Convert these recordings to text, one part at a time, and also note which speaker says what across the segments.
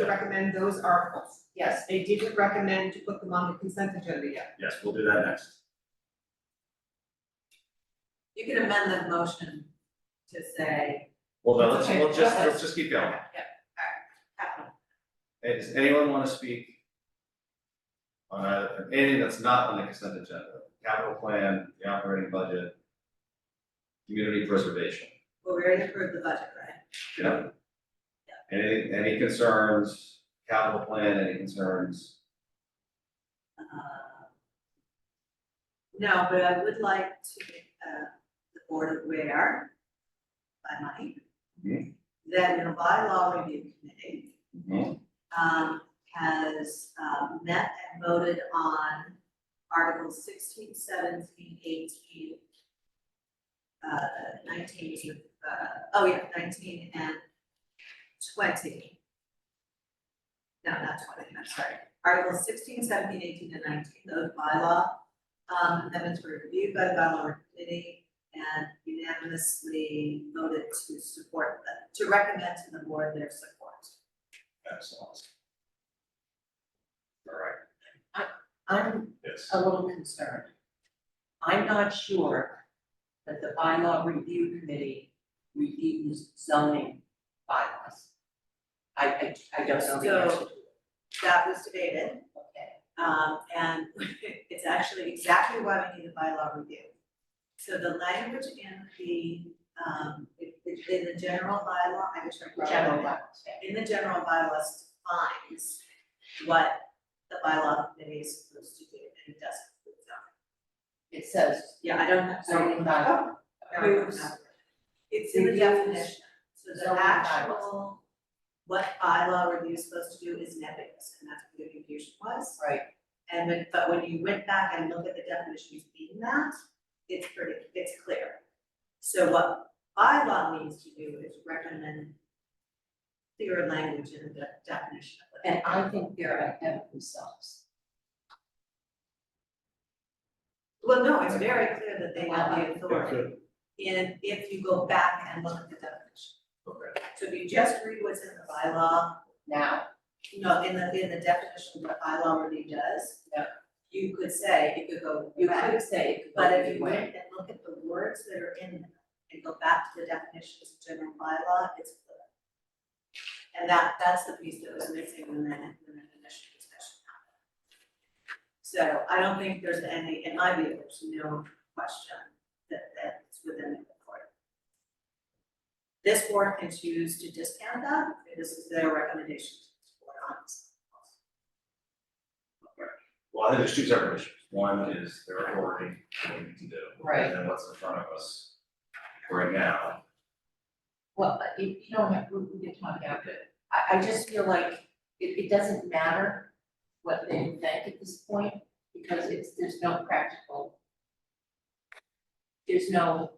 Speaker 1: to recommend those articles. Yes, they didn't recommend to put them on the consent agenda yet.
Speaker 2: Yes, we'll do that next.
Speaker 3: You can amend the motion to say
Speaker 2: Well, then, let's,
Speaker 1: Okay,
Speaker 2: we'll just,
Speaker 1: go ahead.
Speaker 2: let's just keep going.
Speaker 3: capital.
Speaker 2: Hey, does anyone wanna speak? On either- anything that's not on the consent agenda, capital plan, the operating budget. Community preservation,
Speaker 3: Well, we already approved the budget, right?
Speaker 2: you know? Any, any concerns, capital plan, any concerns?
Speaker 3: Uh, No, but I would like to make uh, the board aware by Mike
Speaker 2: Mhm.
Speaker 3: that your bylaw review committee
Speaker 2: Mhm.
Speaker 3: um, has, um, met and voted on Articles 16, 17, 18, uh, nineteen, uh, oh yeah, nineteen and twenty. No, not twenty, I'm sorry, Articles 16, 17, 18, and nineteen, those bylaw, um, amendments were reviewed by the bylaw committee and unanimously voted to support them, to recommend to the board their support.
Speaker 2: Excellent. Alright,
Speaker 4: I'm
Speaker 2: yes.
Speaker 4: a little concerned. I'm not sure that the bylaw review committee reviews zoning bylaws. I, I, I don't know the answer to it.
Speaker 3: That was debated,
Speaker 4: Okay.
Speaker 3: um, and it's actually exactly why we need a bylaw review. So the language in the, um, in in the general bylaw, I just wrote.
Speaker 4: General bylaws, yeah.
Speaker 3: In the general bylaws defines what the bylaw committee is supposed to do, and it doesn't. include zoning.
Speaker 4: It says
Speaker 3: Yeah, I don't have.
Speaker 4: zoning bylaw. approves
Speaker 3: It's in the
Speaker 4: Reviews.
Speaker 3: definition, so the
Speaker 4: Zoning bylaws.
Speaker 3: actual, what bylaw review is supposed to do is nebulous, and that's what the confusion was.
Speaker 4: Right,
Speaker 3: And when, but when you went back and looked at the definitions in that, it's pretty, it's clear. So what bylaw needs to do is recommend clear language in the de- definition of it.
Speaker 4: and I think they're ahead of themselves.
Speaker 3: Well, no, it's very clear that they have the authority,
Speaker 2: Okay.
Speaker 3: and if you go back and look at the definition.
Speaker 2: Okay.
Speaker 3: So if you just read what's in the bylaw,
Speaker 4: Now,
Speaker 3: you know, in the, in the definition of what bylaw review does.
Speaker 4: Yeah.
Speaker 3: You could say, it could go
Speaker 4: you
Speaker 3: back.
Speaker 4: could say it could go
Speaker 3: But
Speaker 4: either
Speaker 3: if you
Speaker 4: way.
Speaker 3: went and look at the words that are in them and go back to the definitions of general bylaw, it's clear. And that, that's the piece that was missing when that, when that initial discussion happened. So I don't think there's any, in my view, there's no question that, that it's within the report. This board can choose to discount that, if this is their recommendation to this board on this.
Speaker 2: Well, I think there's two separate issues, one is their authority, what we need to do.
Speaker 4: Right.
Speaker 2: And then what's in front of us right now.
Speaker 4: Well, but you, you don't have, we, we can talk after. I, I just feel like it, it doesn't matter what they think at this point, because it's, there's no practical. There's no,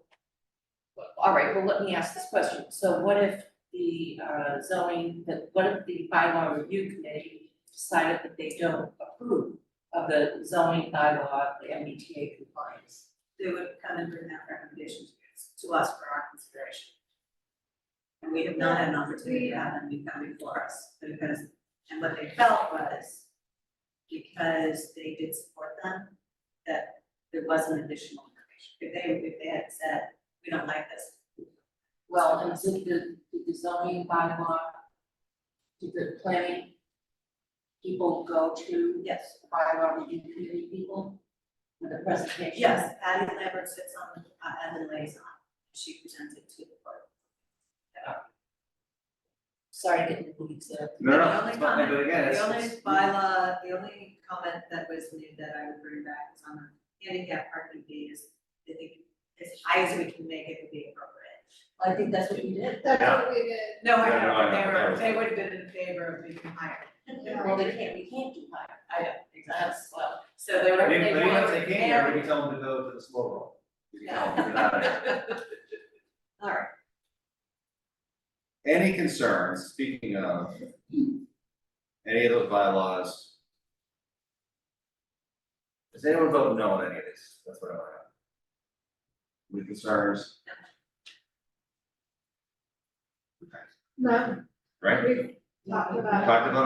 Speaker 4: all right, well, let me ask this question. So what if the uh, zoning, the, what if the bylaw review committee decided that they don't approve of the zoning bylaw, the MBTA compliance?
Speaker 3: they would come and bring that recommendation to us, to us for our consideration. And we have not had an opportunity to have them be coming for us, because, and what they felt was because they did support them, that there wasn't additional information. If they, if they had said, we don't like this,
Speaker 4: Well, and did the, did the zoning bylaw, did the planning people go to
Speaker 3: yes,
Speaker 4: the bylaw review committee people with the presentation?
Speaker 3: yes, Patty Lambert sits on, the- uh, as a liaison, she presented to the board.
Speaker 4: Sorry, getting the weeds there.
Speaker 2: No,
Speaker 3: The
Speaker 2: no,
Speaker 3: only
Speaker 2: it's fine, but
Speaker 3: comment-
Speaker 2: again, it's.
Speaker 3: The only
Speaker 2: it's-
Speaker 3: bylaw, the only comment that was made that I would bring back is on the handicap parking fee is, I think, as high as we can make it would be appropriate.
Speaker 4: I think that's what you did.
Speaker 5: That's
Speaker 2: Yeah.
Speaker 5: what we did,
Speaker 3: No,
Speaker 2: I Yeah, no, I know, know,
Speaker 3: they
Speaker 2: they were- that
Speaker 3: were,
Speaker 2: was-
Speaker 3: they
Speaker 2: they
Speaker 3: would have been in favor of being higher.
Speaker 5: yeah.
Speaker 4: Well, they can't, we can't do higher.
Speaker 3: I don't think
Speaker 4: That's, well,
Speaker 3: So they were,
Speaker 2: But
Speaker 3: they
Speaker 2: even-
Speaker 3: were
Speaker 2: but even if they can, we
Speaker 3: very.
Speaker 2: can tell them to go to the slow roll. We can tell them, "Get out of here."
Speaker 3: All right,
Speaker 2: Any concerns, speaking of, any of those bylaws? Does anyone vote no on any of these? That's what I want to know. Any concerns?
Speaker 5: No,
Speaker 2: Right?
Speaker 5: we,
Speaker 6: talking about.
Speaker 1: Talked about